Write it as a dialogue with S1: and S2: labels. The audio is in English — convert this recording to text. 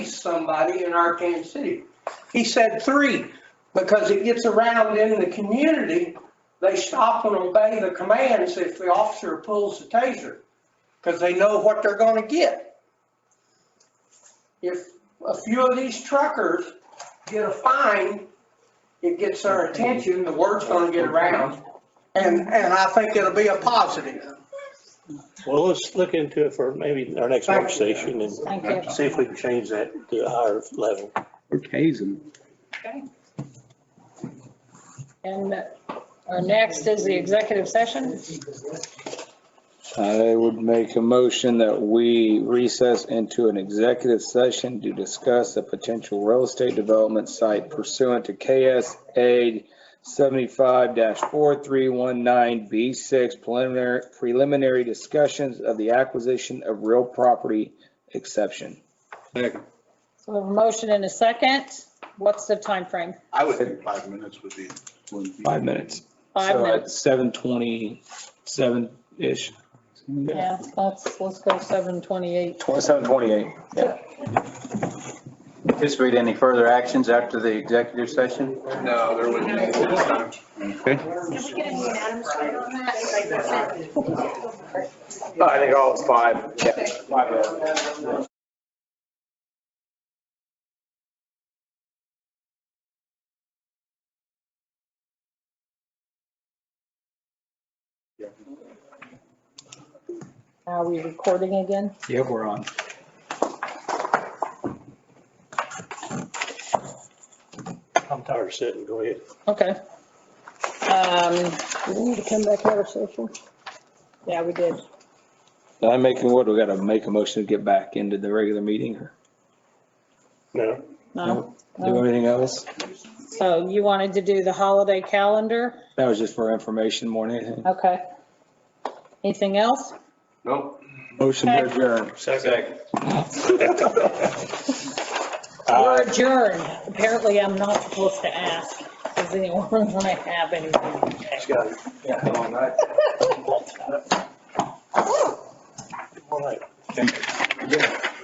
S1: somebody in Arkansas City. He said three, because it gets around in the community, they stop and obey the commands if the officer pulls the taser, because they know what they're gonna get. If a few of these truckers get a fine, it gets their attention, the word's gonna get around, and, and I think it'll be a positive.
S2: Well, let's look into it for maybe our next
S1: Thank
S2: work
S1: you.
S2: session and
S3: Thank you.
S2: see if we can change that to a higher level.
S4: or tase them.
S3: And our next is the executive session.
S5: I would make a motion that we recess into an executive session to discuss a potential real estate development site pursuant to KSA 75-4319B6 preliminary, preliminary discussions of the acquisition of real property exception.
S3: So we have a motion and a second. What's the time frame?
S6: I would think five minutes would be. would be-
S5: Five minutes.
S3: Five
S5: So at
S3: minutes.
S5: 7:27-ish,
S3: Yeah, let's, let's go seven twenty-eight.
S5: 27:28.
S7: Anticipate any further actions after the executive session?
S6: No, there wouldn't be. this time.
S5: Uh,
S8: Did we get any Adams straight on that? Like,
S5: I think all is five, yeah, five minutes.
S3: Are we recording again?
S5: Yeah, we're on.
S2: I'm tired of sitting, go ahead.
S3: Okay. Um, do we need to come back out of session? Yeah, we did.
S5: I'm making, what, we gotta make a motion to get back into the regular meeting or
S2: No,
S3: No.
S5: do anything else?
S3: So you wanted to do the holiday calendar?
S5: That was just for information more than anything.
S3: Okay. Anything else?
S6: Nope.
S5: Motion to adjourn.
S2: second.
S3: We're adjourned. Apparently I'm not supposed to ask. Does anyone want to have anything?
S2: Scotty.
S6: Yeah, long night.
S2: All right.
S6: Yeah.